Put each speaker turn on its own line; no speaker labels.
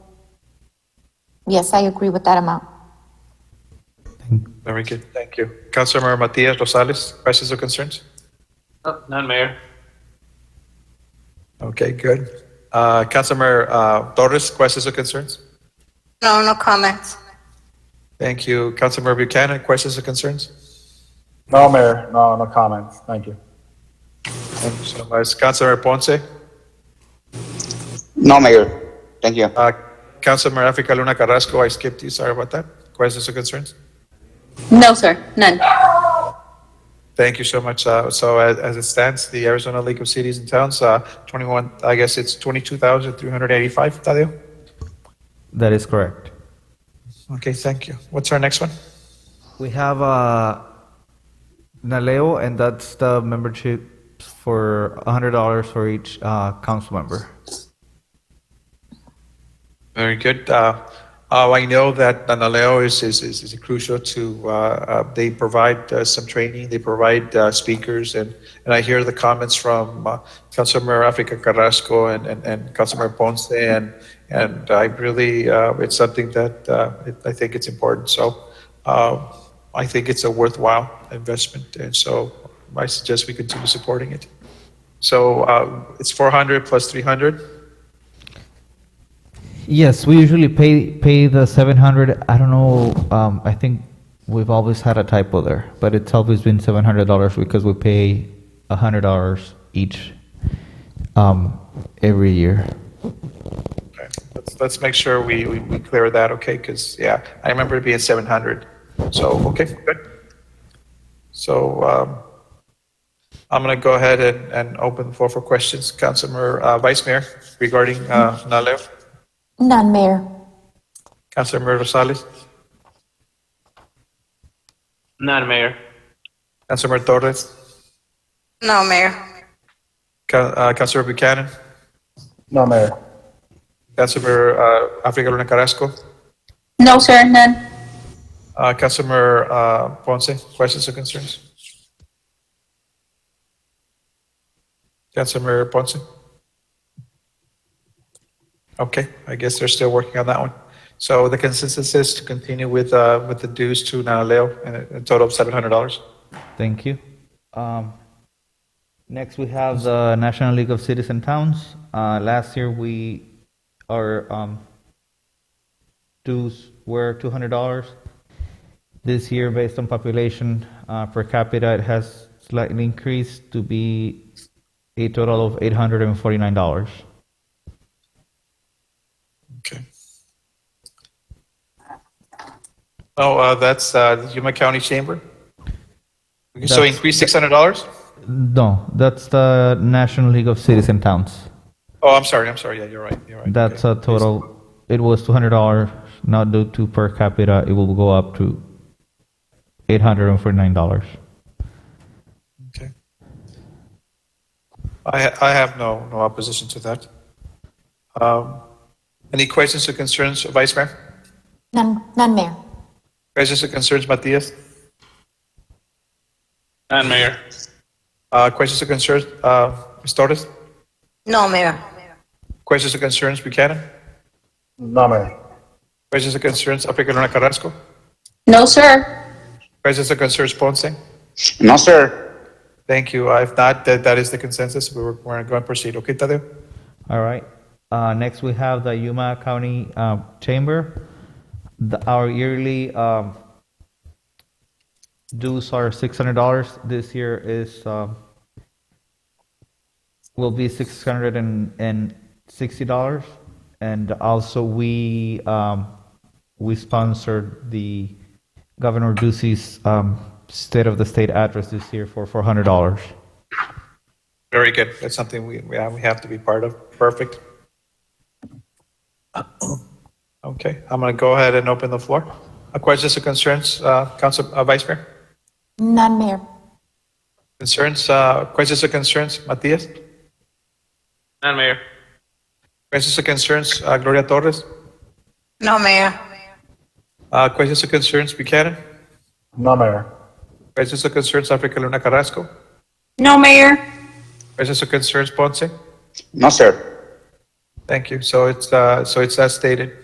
Yes, I agree with that amount.
Very good, thank you. Councilmember Matias Rosales, questions or concerns?
Oh, None, Mayor.
Okay, good. Uh, Councilmember uh, Torres, questions or concerns?
No, no comments.
Thank you. Councilmember Buchanan, questions or concerns?
No, Mayor, no, no comments. Thank you.
Thank you so much. Councilmember Ponce,
No, Mayor. Thank you.
uh, Councilmember Africa Luna Carrasco, I skipped you, sorry about that. Questions or concerns?
No, sir, none.
Thank you so much. Uh, So as as it stands, the Arizona League of Cities and Towns, uh, 21, I guess it's 22,385, Tadeo?
That is correct.
Okay, thank you. What's our next one?
We have uh, Naleo, and that's the memberships for $100 for each uh, council member.
Very good. Uh, uh, I know that Nanaleo is, is, is, is crucial to, uh, uh, they provide uh, some training, they provide uh, speakers, and, and I hear the comments from uh, Councilmember Africa Carrasco and, and, and Councilmember Ponce, and, and I really, uh, it's something that uh, it, I think it's important. So uh, I think it's a worthwhile investment, and so I suggest we continue supporting it. So uh, it's 400 plus 300.
Yes, we usually pay pay the 700. I don't know. Um, I think we've always had a typo there, but it's always been $700 because we pay $100 each um, every year.
Okay, let's, let's make sure we, we, we clear that, okay? Because, yeah, I remember it being 700. So, okay, good. So, um, I'm going to go ahead and, and open the floor for questions. Councilmember, uh, Vice Mayor regarding, uh, Nalev.
None, Mayor.
Councilmember Rosales,
None, Mayor.
Councilmember Torres,
No, Mayor.
Ca- uh, Councilmember Buchanan,
No, Mayor.
Councilmember, uh, Africa Luna Carrasco,
No, sir, none.
uh, Councilmember, uh, Ponce, questions or concerns? Councilmember Ponce? Okay, I guess they're still working on that one. So the consensus is to continue with, uh, with the dues to Nanaleo and a a total of seven hundred dollars.
Thank you. Um, next, we have the National League of Cities and Towns. Uh, last year, we our um, dues were two hundred dollars. This year, based on population uh, per capita, it has slightly increased to be a total of eight hundred and forty-nine dollars.
Okay. Oh, uh, that's, uh, Yuma County Chamber? So
That's-
increase six hundred dollars?
No, that's the National League of Cities and Towns.
Oh, I'm sorry, I'm sorry, yeah, you're right, you're right.
That's
Okay.
a total, it was two hundred dollars, now due to per capita, it will go up to eight hundred and forty-nine dollars.
Okay. I, I have no, no opposition to that. Um, Any questions or concerns, Vice Mayor?
None, none, Mayor.
Questions or concerns, Matias?
None, Mayor.
Uh, Questions or concerns, uh, Ms. Torres?
No, Mayor.
Questions or concerns, Buchanan?
No, Mayor.
Questions or concerns, Africa Luna Carrasco?
No, sir.
Questions or concerns, Ponce?
No, sir.
Thank you. Uh, If not, that, that is the consensus. We're, we're going to proceed. Okay, Tadeo?
All right, uh, next we have the Yuma County, uh, Chamber. The, our yearly, um, dues are six hundred dollars, this year is, um, will be six hundred and, and sixty dollars. And also, we, um, we sponsored the Governor Ducey's, um, State of the State address this year for four hundred dollars.
Very good. That's something we, we have we have to be part of. Perfect. Okay, I'm going to go ahead and open the floor. Uh, Questions or concerns, uh, Council, uh, Vice Mayor?
None, Mayor.
Concerns, uh, questions or concerns, Matias?
None, Mayor.
Questions or concerns, uh, Gloria Torres?
No, Mayor.
Uh, Questions or concerns, Buchanan?
No, Mayor.
Questions or concerns, Africa Luna Carrasco?
No, Mayor.
Questions or concerns, Ponce?
No, sir.
Thank you. So it's, uh, so it's as stated.